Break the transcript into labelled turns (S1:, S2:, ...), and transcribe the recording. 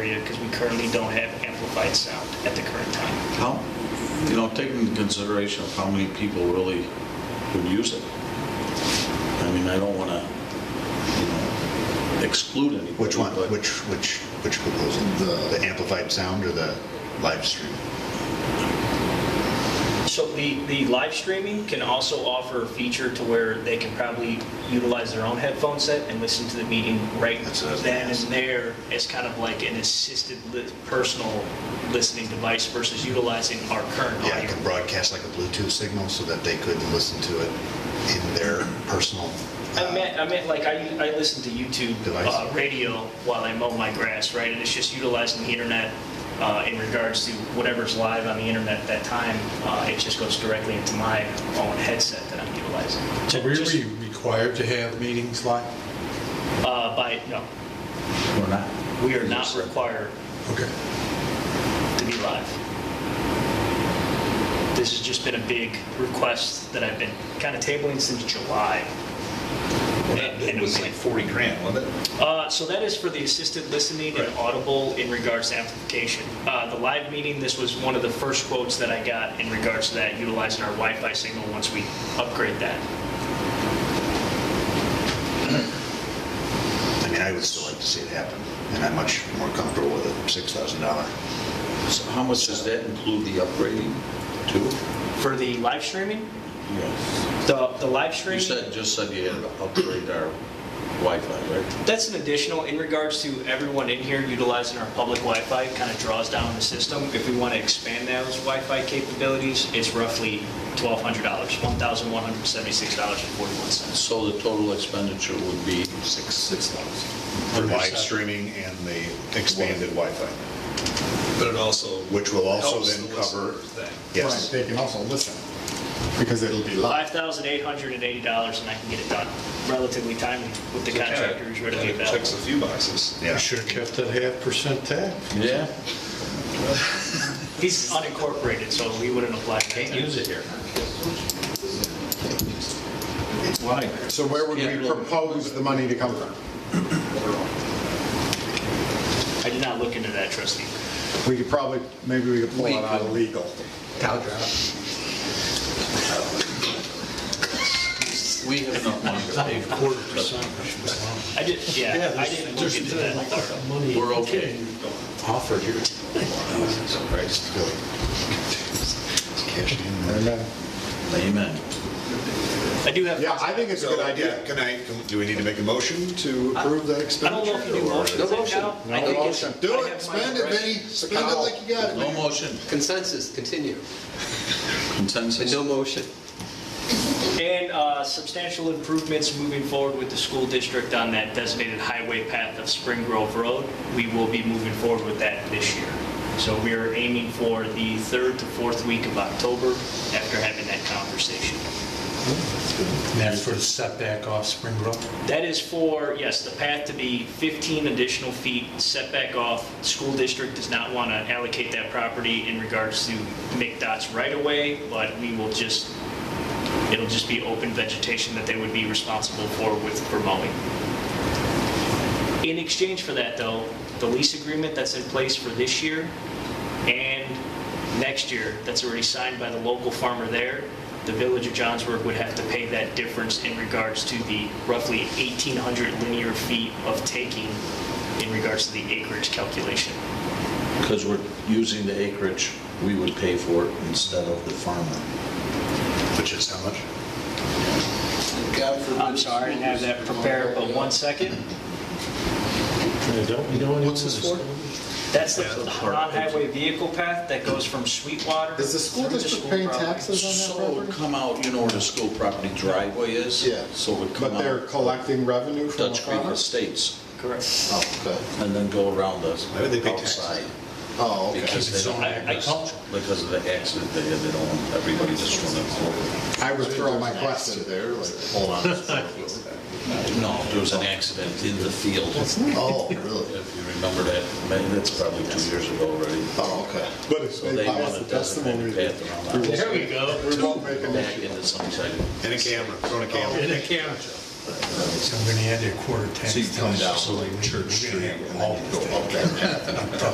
S1: area because we currently don't have amplified sound at the current time.
S2: How, you know, taking into consideration of how many people really would use it. I mean, I don't want to, you know, exclude anybody.
S3: Which one,
S2: but
S3: which, which, which proposal? The the amplified sound or the live stream?
S1: So the, the live streaming can also offer a feature to where they can probably utilize their own headphone set and listen to the meeting right
S3: That's what I was
S1: then
S3: gonna
S1: and
S3: ask.
S1: there as kind of like an assisted li- personal listening device versus utilizing our current
S3: Yeah, I
S1: audio.
S3: could broadcast like a Bluetooth signal so that they could listen to it in their personal.
S1: I meant, I meant like I, I listen to YouTube
S3: Device.
S1: uh, radio while I mow my grass, right? And it's just utilizing the internet uh, in regards to whatever's live on the internet at that time. Uh, it just goes directly into my own headset that I'm utilizing.
S4: Are we
S1: Just,
S4: re- required to have meetings like?
S1: uh, by no,
S2: We're not.
S1: we are not required
S4: Okay.
S1: to be live. This has just been a big request that I've been kind of tabling since July. And- and
S5: It was like 40 grand, wasn't it?
S1: Uh, So that is for the assisted listening and audible in regards to amplification. Uh, The live meeting, this was one of the first quotes that I got in regards to that, utilizing our Wi-Fi signal once we upgrade that.
S3: I mean, I would still like to see it happen, and I'm much more comfortable with a $6,000.
S2: So How much does that include the upgrading to?
S1: For the live streaming,
S2: Yes.
S1: the, the live
S2: You
S1: streaming.
S2: said, just said you had to upgrade our Wi-Fi, right?
S1: That's an additional, in regards to everyone in here utilizing our public Wi-Fi, kind of draws down the system. If we want to expand those Wi-Fi capabilities, it's roughly $1,200, $1,176.41.
S2: So the total expenditure would be
S3: Six, six
S4: For
S3: thousand. Live
S4: yourself.
S3: streaming and the expanded Wi-Fi,
S5: But it also.
S3: which will also
S5: helps
S3: then
S5: the
S3: cover,
S5: listener thing.
S6: Right,
S3: yes.
S6: They can also listen, because it'll be live.
S1: $5,880, and I can get it done relatively timely with the contractor who's readily
S5: Kinda Checks a
S1: available.
S5: few boxes.
S3: Yeah.
S4: You should have kept that half percent tax.
S2: yeah,
S1: He's unincorporated, so we wouldn't apply. Can't use it here.
S6: So where would
S2: Can't really-
S6: we propose the money to come from?
S1: I did not look into that, trustee.
S6: We could probably, maybe we could pull it out of legal.
S2: we have enough money to pay for
S4: Quarter percent, which was long.
S1: I did, yeah, I didn't look into that.
S2: it. We're okay.
S4: Offered here.
S3: Christ, Billy. Cash in there.
S6: Amen.
S2: Amen.
S1: I do have.
S6: Yeah, I think it's a good
S3: So,
S6: idea.
S3: yeah, Can I, can- do we need to make a motion to approve that
S1: I don't
S3: expenditure?
S1: know if you do
S3: or-
S1: motions right now. I
S6: No
S1: think it's-
S6: motion.
S3: Do
S1: I
S3: it,
S1: have my
S3: spend it,
S1: direction.
S3: Vinny, spend it like you got it.
S2: No motion,
S7: Consensus, continue, and
S2: consensus.
S7: no motion.
S1: And uh, substantial improvements moving forward with the school district on that designated highway path of Spring Grove Road. We will be moving forward with that this year. So we are aiming for the third to fourth week of October after having that conversation.
S4: And that's for the setback off Spring Grove?
S1: That is for, yes, the path to be 15 additional feet setback off. School district does not want to allocate that property in regards to McDOT's right away, but we will just, it'll just be open vegetation that they would be responsible for with, for mowing. In exchange for that, though, the lease agreement that's in place for this year and next year, that's already signed by the local farmer there, the village of Johnsburg would have to pay that difference in regards to the roughly 1,800 linear feet of taking in regards to the acreage calculation.
S2: Because we're using the acreage, we would pay for it instead of the farmer.
S3: Which is how much?
S1: I'm sorry, I didn't have that prepared, but one second.
S4: What's this for?
S1: That's the non-highway vehicle path that goes from Sweetwater.
S6: Is the school
S1: through
S6: district
S1: school
S6: paying
S1: property.
S6: taxes on
S2: So it
S6: that
S2: would
S6: property?
S2: come out, you know where the school property driveway is?
S6: Yeah.
S2: So it would come
S6: But they're
S2: out
S6: collecting revenue from the
S2: Dutch Creek
S6: farmer?
S2: Estates
S1: Correct.
S6: Okay.
S2: and then go around the
S3: Why would they pay taxes?
S2: outside.
S6: Oh, okay.
S2: Because they don't
S1: I-
S2: have
S1: I-
S2: this- because of the accident they had, they don't, want everybody just running
S6: I withdraw my question.
S3: There, like, hold on.
S2: over. No, there was an accident in the field, if
S3: Oh, really?
S2: you remember that, man, that's probably two years ago already.
S3: Oh, okay.
S6: But if
S2: So
S6: they
S2: they
S6: pass
S2: want
S6: the
S2: to designate
S6: testimony,
S2: a
S6: we
S2: path around
S6: There
S2: that,
S6: we won't make an
S2: back
S6: issue.
S2: into some side.
S4: Oh,
S3: And a camera, throw in a camera.
S4: In a camera. So I'm gonna add a quarter tax.
S3: So you come
S4: to it,
S3: down
S4: so like,
S3: Church
S4: we're gonna
S3: Street
S4: have
S3: and
S4: all
S3: then you
S4: the
S3: go up that path.
S4: I'm done.